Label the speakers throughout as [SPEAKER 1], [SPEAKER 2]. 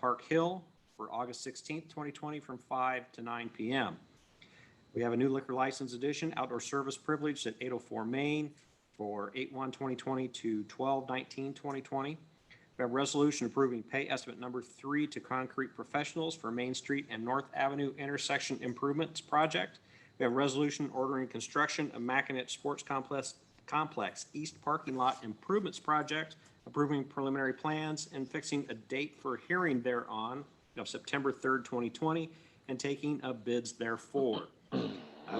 [SPEAKER 1] Park Hill for August 16th, 2020, from 5 to 9 p.m. We have a new liquor license addition, outdoor service privilege at 804 Main for 8/1/2020 to 12/19/2020. We have a resolution approving pay estimate number three to Concrete Professionals for Main Street and North Avenue intersection improvements project. We have a resolution ordering construction of Mackinac Sports Complex, Complex East Parking Lot Improvements Project, approving preliminary plans and fixing a date for hearing thereon of September 3rd, 2020, and taking of bids therefor. Uh,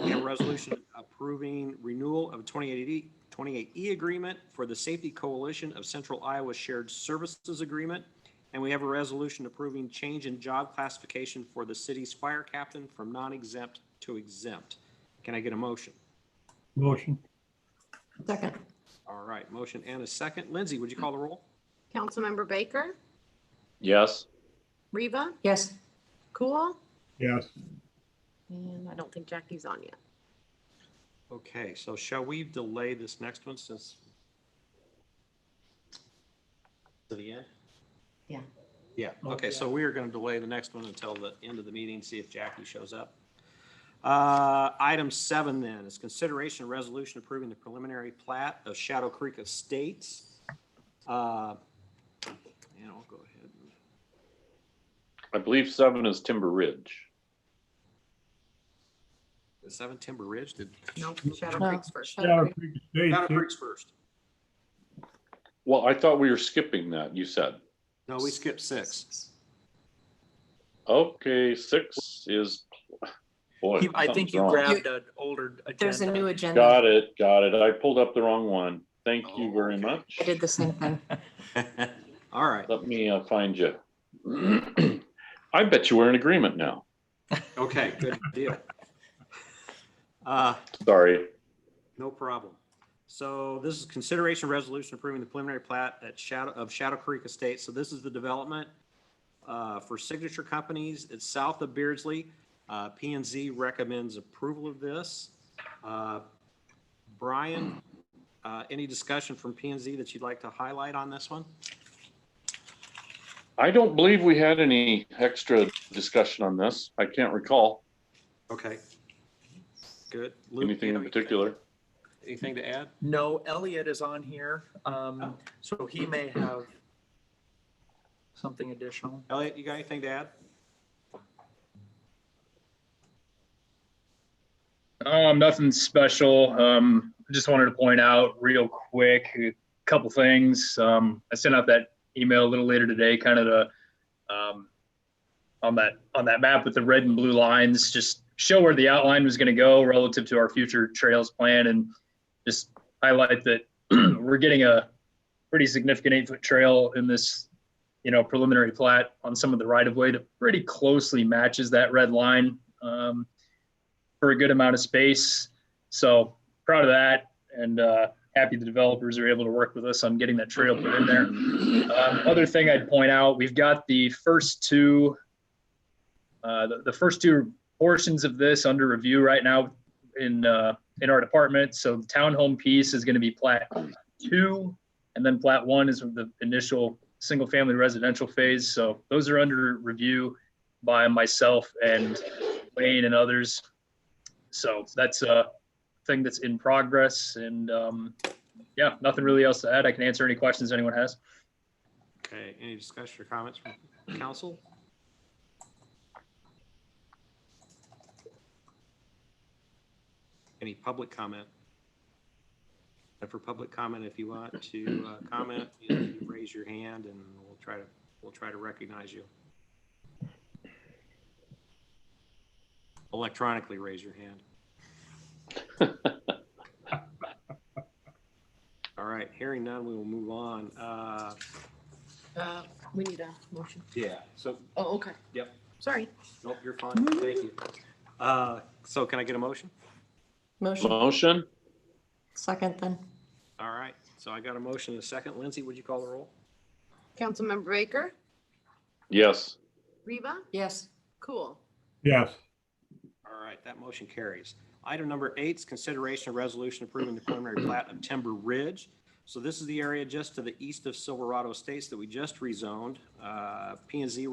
[SPEAKER 1] We have a resolution approving renewal of 28E 28E E agreement for the Safety Coalition of Central Iowa Shared Services Agreement. And we have a resolution approving change in job classification for the city's fire captain from non-exempt to exempt. Can I get a motion?
[SPEAKER 2] Motion,
[SPEAKER 3] Second.
[SPEAKER 1] All right, motion and a second. Lindsay, would you call the roll?
[SPEAKER 3] Councilmember Baker?
[SPEAKER 4] Yes.
[SPEAKER 3] Reva? Yes. Cool?
[SPEAKER 2] yes.
[SPEAKER 3] And I don't think Jackie's on yet.
[SPEAKER 1] Okay, so shall we delay this next one since? To the end?
[SPEAKER 3] Yeah.
[SPEAKER 1] Yeah, okay, so we are going to delay the next one until the end of the meeting, see if Jackie shows up. Uh, Item seven then is consideration of resolution approving the preliminary plat of Shadow Creek Estates. Uh, And I'll go ahead. and-
[SPEAKER 4] I believe seven is Timber Ridge.
[SPEAKER 1] Is seven Timber Ridge? Did
[SPEAKER 3] No, Shadow
[SPEAKER 5] No.
[SPEAKER 3] Creek's first.
[SPEAKER 2] Shadow Creek
[SPEAKER 1] Shadow
[SPEAKER 2] Estates,
[SPEAKER 1] Creek's first?
[SPEAKER 4] Well, I thought we were skipping that, you said.
[SPEAKER 1] No, we skipped six.
[SPEAKER 4] Okay, six is, boy.
[SPEAKER 6] You- I think
[SPEAKER 4] something's
[SPEAKER 6] you
[SPEAKER 4] wrong.
[SPEAKER 6] grabbed an older
[SPEAKER 5] There's a
[SPEAKER 6] agenda.
[SPEAKER 5] new agenda.
[SPEAKER 4] Got it, got it. I pulled up the wrong one. Thank you
[SPEAKER 1] Oh,
[SPEAKER 4] very
[SPEAKER 1] okay.
[SPEAKER 4] much.
[SPEAKER 5] I did the same thing.
[SPEAKER 1] All right.
[SPEAKER 4] Let me uh, find you. I bet you we're in agreement now.
[SPEAKER 1] Okay, good deal. Uh,
[SPEAKER 4] Sorry.
[SPEAKER 1] No problem. So this is consideration resolution approving the preliminary plat at Shadow, of Shadow Creek Estates. So this is the development uh, for signature companies. It's south of Beardsley. Uh, P and Z recommends approval of this. Uh, Brian, uh, any discussion from P and Z that you'd like to highlight on this one?
[SPEAKER 4] I don't believe we had any extra discussion on this. I can't recall
[SPEAKER 1] Okay. Good. Luke, you
[SPEAKER 4] anything
[SPEAKER 1] know,
[SPEAKER 4] in particular.
[SPEAKER 1] Anything to add?
[SPEAKER 6] No, Elliot is on here, um, so he may have something additional.
[SPEAKER 1] Elliot, you got anything to add?
[SPEAKER 7] Um, nothing special. Um, I just wanted to point out real quick a couple things. Um, I sent out that email a little later today, kind of the um, on that on that map with the red and blue lines, just show where the outline was going to go relative to our future trails plan, and just highlight that we're getting a pretty significant eight foot trail in this, you know, preliminary plat on some of the right of way that pretty closely matches that red line. Um, for a good amount of space. So proud of that and uh, happy the developers are able to work with us on getting that trail put in there. Um, other thing I'd point out, we've got the first two, uh, the, the first two portions of this under review right now in uh, in our department. So the townhome piece is going to be plat two, and then plat one is the initial single family residential phase. So those are under review by myself and Wayne and others. So that's a thing that's in progress and um, yeah, nothing really else to add. I can answer any questions anyone has.
[SPEAKER 1] Okay, any discussion or comments from council? Any public comment? And for public comment, if you want to uh, comment, you know, you raise your hand and we'll try to, we'll try to recognize you. Electronically raise your hand. All right, hearing none, we will move on. Uh,
[SPEAKER 3] Uh, We need a motion.
[SPEAKER 1] Yeah, so,
[SPEAKER 3] Oh, okay.
[SPEAKER 1] Yep.
[SPEAKER 3] Sorry.
[SPEAKER 1] nope, you're fine, thank you. Uh, So can I get a motion?
[SPEAKER 5] Motion,
[SPEAKER 4] Motion?
[SPEAKER 5] second then.
[SPEAKER 1] All right, so I got a motion and a second. Lindsay, would you call the roll?
[SPEAKER 3] Councilmember Baker?
[SPEAKER 4] Yes.
[SPEAKER 3] Reva?
[SPEAKER 5] Yes,
[SPEAKER 3] Cool.
[SPEAKER 2] yes.
[SPEAKER 1] All right, that motion carries. Item number eight is consideration of resolution approving the preliminary plat of Timber Ridge. So this is the area just to the east of Silverado Estates that we just rezoned. Uh, P and Z